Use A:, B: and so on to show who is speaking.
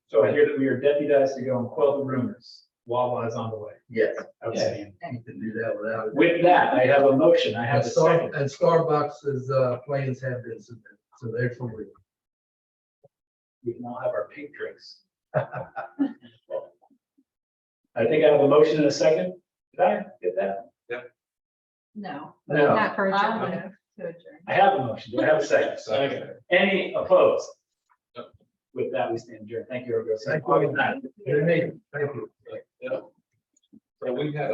A: So I hear that we are deputized to go and quell the rumors. Wawa is on the way.
B: Yes.
A: Okay.
B: You can do that without it.
A: With that, I have a motion. I have
B: And
A: a
B: Star-
A: second.
B: and Starbucks' uh, plans have been submitted, so they're for real.
A: We can all have our pink drinks. I think I have a motion and a second. Did I get that?
C: No,
A: No,
C: not for a
D: I'll
C: job.
A: I have a motion. Do I have a second? Any opposed? With that, we stand adjourned. Thank you, everybody.
B: Thank you.
A: August ninth.
B: Good meeting. Thank you.
D: So we had